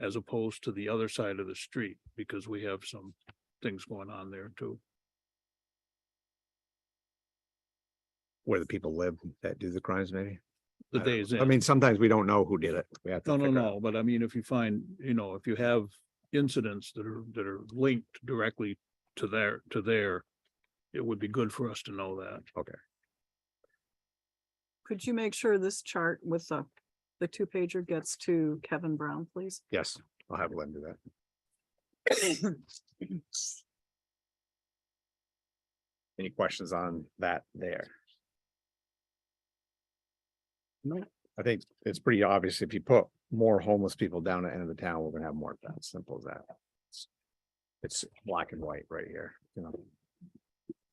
as opposed to the other side of the street, because we have some things going on there too. where the people live that do the crimes, maybe? The I don't know. days I in. mean, sometimes we don't know who did it. We have to. No, no, figure out. no, but I mean, if you find, you know, if you have incidents that are, that are linked directly to their, to their, it would be good for us to know that. Could you make sure this chart with the, the two pager gets to Kevin Brown, please? Yes, I'll have Lynn do that. Any questions on that there? No. I think it's pretty obvious. If you put more homeless people down at the end of the town, we're gonna have more of that. Simple as that. It's- It's black and white right here, you know?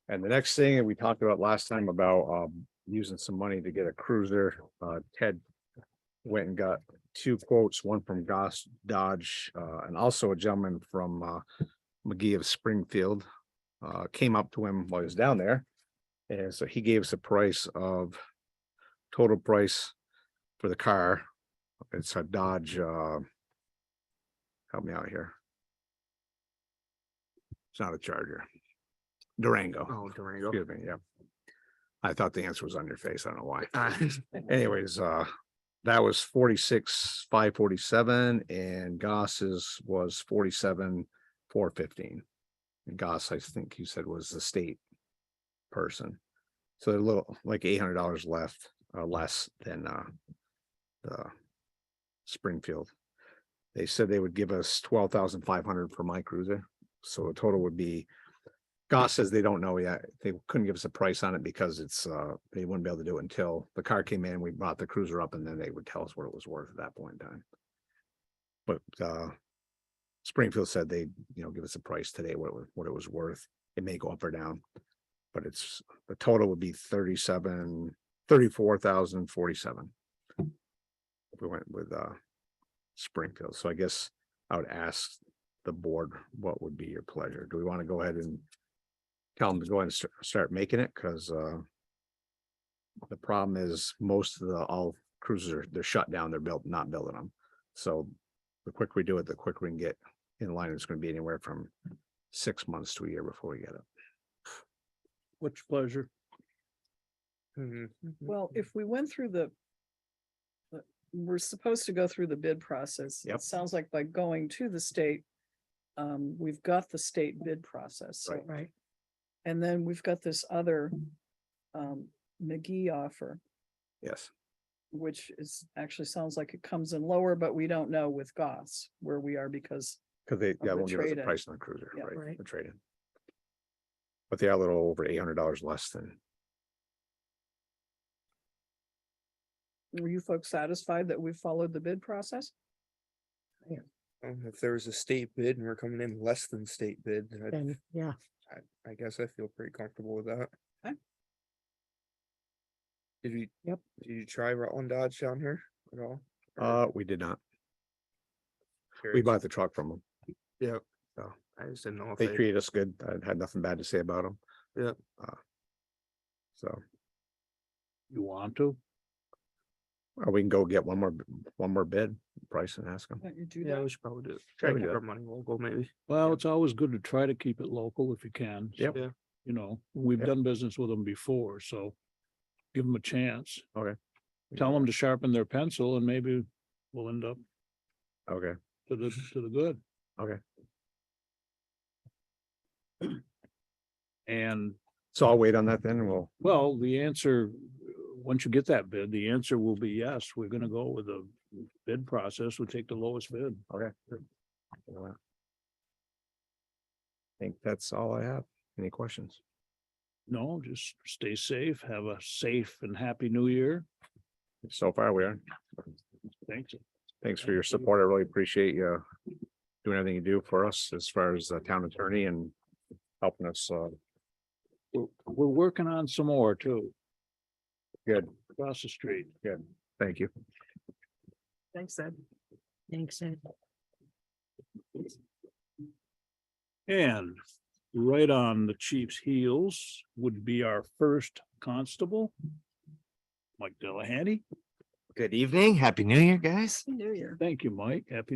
And the next thing, and we talked about last time about um using some money to get a cruiser, uh Ted went and got two quotes, one from Goss Dodge, uh, and also a gentleman from, uh, McGee of Springfield, uh, came up to him while he was down there. And so he gave us a price of total price for the car. It's a Dodge, uh, help me out here. It's not a Charger. Durango. Oh, Durango. Excuse me, yeah. I thought the answer was on your face. I don't know Uh, why. Anyways, uh, that was forty-six, five forty-seven and Goss's was forty-seven, four fifteen. And Goss, I think you said was the state person. So they're a little like eight hundred dollars left, uh, less than, uh, the Springfield. They said they would give us twelve thousand five hundred for my cruiser. So the total would be Goss says they don't know yet. They couldn't give us a price on it because it's, uh, they wouldn't be able to do it until the car came in, we brought the cruiser up and then they would tell us what it was worth at that point in time. But, uh, Springfield said they, you know, give us a price today, what, it wa- what it was worth. It may go up or down. But it's, the total would be thirty-seven, thirty-four thousand forty-seven. If we went with, uh, Springfield. So I guess I would ask the board, what would be your pleasure? Do we want to go ahead and tell them to go ahead and start, start making it? Cause, uh, the problem is most of the, all cruisers, are they're shut down, they're built, not building them. So the quicker we do it, the quicker we can get in line. It's going to be anywhere from six months to a year before we get it. What's your pleasure? Well, if we went through the, the- we're supposed to go through the bid process. Yep. It sounds like by going to the state, um, we've got the state bid process. so- Right. Right. And then we've got this other, um, McGee offer, Yes. which is, actually sounds like it comes in lower, but we don't know with Goss where we are because Cause they, yeah, the won't give us a trade-in. price on the cruiser, Yeah, right? right. The trade-in. But they are a little over eight hundred dollars less than, were you folks satisfied that we followed the bid process? If there was a state bid and we're coming in less than state bid, then I'd- Then, yeah, I, I guess I feel pretty comfortable with that. Okay. Did you? Yep. Did you try Rutland Dodge down here at all? Or uh, we did not. We curious? bought the truck from them. Yeah. so. I just didn't know if They they, treated us good. I had nothing bad to say about them. Yep. Uh, So, You want to? or we can go get one more, b- one more bid price and ask them. Why don't you do yeah, that? we should probably do it. Try to we keep do our money local maybe. Well, it's always good to try to keep it local if you can. so, Yeah. You know, we've Yep. done business with them before, so give them a chance. Okay. Tell them to sharpen their pencil and maybe we'll end up Okay, to the, to the good. Okay. And so I'll wait on that then and we'll, Well, the answer, uh, once you get that bid, the answer will be yes, we're gonna go with the bid process, we take the lowest bid. okay. We'll do that. Think that's all I have. Any questions? No, just stay safe, have a safe and happy new year. So far we are. Thanks. Thanks for your support. I really appreciate you uh, doing everything you do for us as far as the town attorney and helping us, uh, We're, we're working on some more too. Good. Across the street. thank you. Thanks, Ed. thanks, Ed. And right on the chief's heels would be our first constable. Mike Delahanty. Good evening. Happy New Year, guys. New Year. Thank you, Mike. Happy